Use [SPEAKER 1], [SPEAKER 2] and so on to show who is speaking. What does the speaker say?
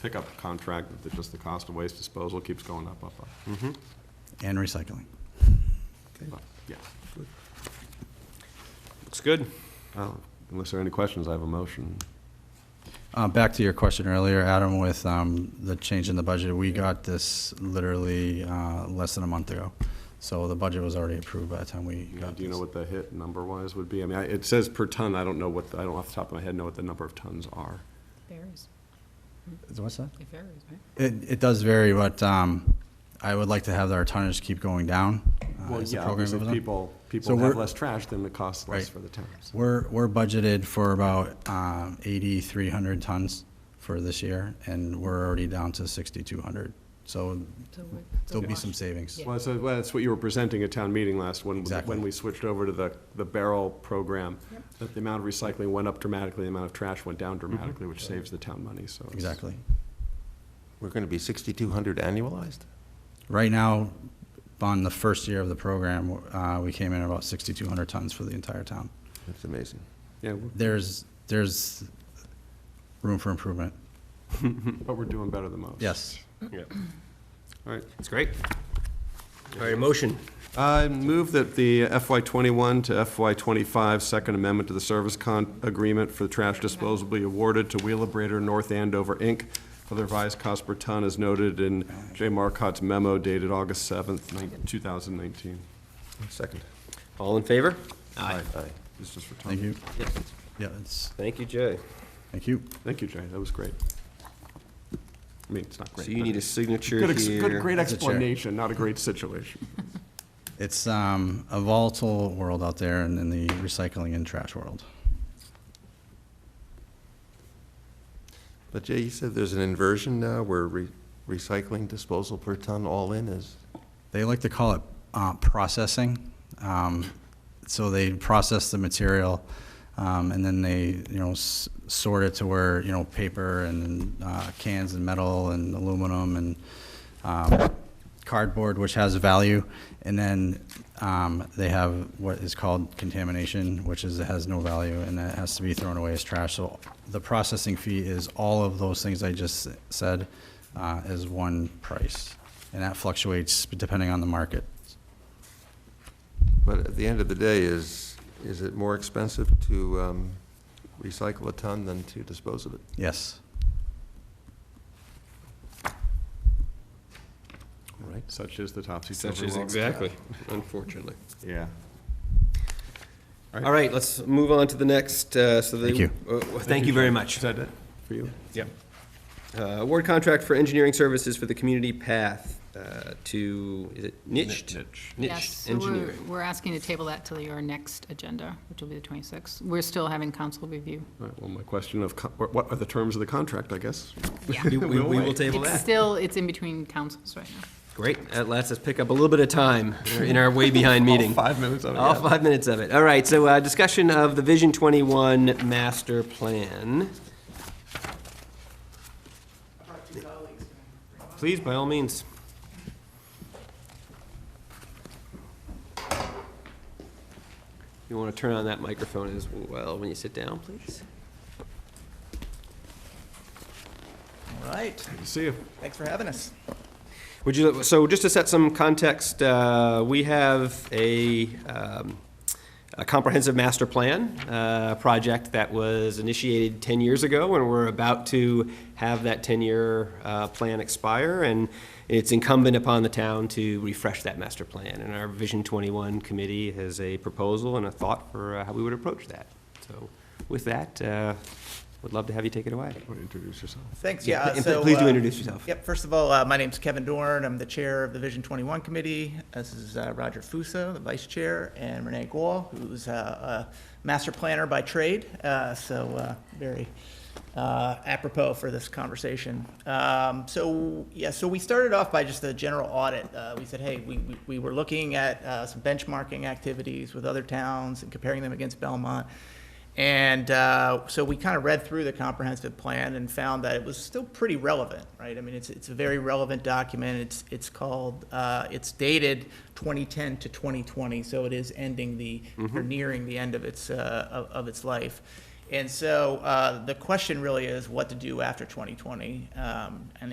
[SPEAKER 1] pickup contract, that just the cost of waste disposal keeps going up, up, up.
[SPEAKER 2] and recycling.
[SPEAKER 1] But, Yeah.
[SPEAKER 3] Looks good.
[SPEAKER 1] Well, Unless there are any questions, I have a motion.
[SPEAKER 2] Uh, Back to your question earlier, Adam, with um, the change in the budget, we got this literally uh, less than a month ago. So the budget was already approved by the time we
[SPEAKER 1] You know,
[SPEAKER 2] got
[SPEAKER 1] Do you know what
[SPEAKER 2] this.
[SPEAKER 1] the hit number-wise would be? I mean, I- it says per ton, I don't know what, I don't off the top of my head know what the number of tons are.
[SPEAKER 4] Varies,
[SPEAKER 2] What's that?
[SPEAKER 4] it varies, right?
[SPEAKER 2] It, it does vary, but um, I would like to have our tonnage keep going down. uh,
[SPEAKER 1] Well,
[SPEAKER 2] as the
[SPEAKER 1] yeah,
[SPEAKER 2] program
[SPEAKER 1] obviously,
[SPEAKER 2] goes on.
[SPEAKER 1] people,
[SPEAKER 2] So
[SPEAKER 1] people have
[SPEAKER 2] we're-
[SPEAKER 1] less trash, then it costs less
[SPEAKER 2] Right.
[SPEAKER 1] for the towns.
[SPEAKER 2] We're, we're budgeted for about um, 8,300 tons for this year, and we're already down to 6,200. So
[SPEAKER 4] So we're- so
[SPEAKER 2] there'll be
[SPEAKER 4] we're-
[SPEAKER 2] some savings.
[SPEAKER 4] Yeah.
[SPEAKER 1] Well, so, well, that's what you were presenting at town meeting last, when,
[SPEAKER 2] Exactly.
[SPEAKER 1] when we switched over to the, the barrel program, that the amount of recycling went up dramatically, the amount of trash went down dramatically, which saves the town money, so. it's-
[SPEAKER 2] Exactly.
[SPEAKER 5] We're going to be 6,200 annualized?
[SPEAKER 2] Right now, on the first year of the program, uh, we came in about 6,200 tons for the entire town.
[SPEAKER 5] That's amazing.
[SPEAKER 1] Yeah, we're-
[SPEAKER 2] There's, there's room for improvement.
[SPEAKER 1] but we're doing better than most.
[SPEAKER 2] Yes.
[SPEAKER 1] All right.
[SPEAKER 3] It's great. All right, a motion.
[SPEAKER 1] I move that the FY twenty-one to FY twenty-five Second Amendment to the Service Con Agreement for Trash Disposal be awarded to Wheelabrator North Andover, Inc. for the revised cost per ton as noted in J. Marcotte's memo dated August seventh, two thousand nineteen.
[SPEAKER 5] Second.
[SPEAKER 3] All in favor?
[SPEAKER 5] Aye.
[SPEAKER 1] This is for Tom.
[SPEAKER 2] Thank you.
[SPEAKER 3] Yes.
[SPEAKER 2] Yeah, it's,
[SPEAKER 3] Thank you, Jay.
[SPEAKER 2] thank you.
[SPEAKER 1] Thank you, Jay, that was great. I mean, it's not great.
[SPEAKER 3] So you
[SPEAKER 1] but-
[SPEAKER 3] need a signature
[SPEAKER 1] Good, ex- good,
[SPEAKER 3] here.
[SPEAKER 1] great
[SPEAKER 2] As a chair.
[SPEAKER 1] explanation, not a great situation.
[SPEAKER 2] It's um, a volatile world out there in, in the recycling and trash world.
[SPEAKER 5] But Jay, you said there's an inversion now where re- recycling disposal per ton all in is,
[SPEAKER 2] They like to call it uh, processing. Um, so they process the material um, and then they, you know, s- sort it to where, you know, paper and uh, cans and metal and aluminum and um, cardboard, which has value. And then um, they have what is called contamination, which is, it has no value and that has to be thrown away as trash. So the processing fee is all of those things I just said uh, as one price. And that fluctuates depending on the market.
[SPEAKER 5] but at the end of the day, is, is it more expensive to um, recycle a ton than to dispose of it?
[SPEAKER 2] Yes.
[SPEAKER 5] Right.
[SPEAKER 1] Such is the topsy-turvy
[SPEAKER 3] Such
[SPEAKER 1] world.
[SPEAKER 3] is exactly, unfortunately.
[SPEAKER 1] Yeah.
[SPEAKER 3] All right, let's move on to the next, uh, so the.
[SPEAKER 2] Thank you.
[SPEAKER 3] uh, Thank you very much.
[SPEAKER 1] Is that it for you?
[SPEAKER 3] Yep. Uh, Award contract for engineering services for the community path uh, to, is it niched?
[SPEAKER 1] Niche.
[SPEAKER 4] Yes,
[SPEAKER 3] Niche
[SPEAKER 4] so we're,
[SPEAKER 3] engineering.
[SPEAKER 4] we're asking to table that till your next agenda, which will be the 26th. We're still having council review.
[SPEAKER 1] All right, well, my question of, co- what what are the terms of the contract, I guess?
[SPEAKER 3] We we- we will table
[SPEAKER 4] It's
[SPEAKER 3] that.
[SPEAKER 4] still, it's in between councils right now.
[SPEAKER 3] Great, that lets us pick up a little bit of time in our way behind meeting. Oh.
[SPEAKER 1] Five minutes of it.
[SPEAKER 3] All five minutes of it. All right, so uh, discussion of the Vision 21 master plan. Please, by all means. You want to turn on that microphone as well when you sit down, please?
[SPEAKER 6] All right,
[SPEAKER 1] Good to See you.
[SPEAKER 6] thanks for having us.
[SPEAKER 3] Would you, so just to set some context, uh, we have a, um, a comprehensive master plan, uh, project that was initiated ten years ago, and we're about to have that ten-year, uh, plan expire, and it's incumbent upon the town to refresh that master plan, and our Vision twenty-one committee has a proposal and a thought for uh, how we would approach that. So with that, uh, would love to have you take it away.
[SPEAKER 1] Want to Introduce yourself.
[SPEAKER 6] Thanks,
[SPEAKER 3] Yeah,
[SPEAKER 6] yeah.
[SPEAKER 3] and
[SPEAKER 6] so,
[SPEAKER 3] please do
[SPEAKER 6] uh,
[SPEAKER 3] introduce yourself.
[SPEAKER 6] Yep, first of all, uh, my name's Kevin Dorn, I'm the chair of the Vision 21 Committee. This is uh, Roger Fuso, the vice chair, and Renee Gual, who's uh, a master planner by trade, Uh, so uh, very uh, apropos for this conversation. Um, So, yeah, so we started off by just a general audit. Uh, We said, hey, we- we we were looking at uh, some benchmarking activities with other towns and comparing them against Belmont. And uh, so we kind of read through the comprehensive plan and found that it was still pretty relevant, right? I mean, it's, it's a very relevant document. It's, it's called, uh, it's dated 2010 to 2020, so it is ending the, or nearing the end of its, uh, of of its life. And so uh, the question really is what to do after 2020. Um, and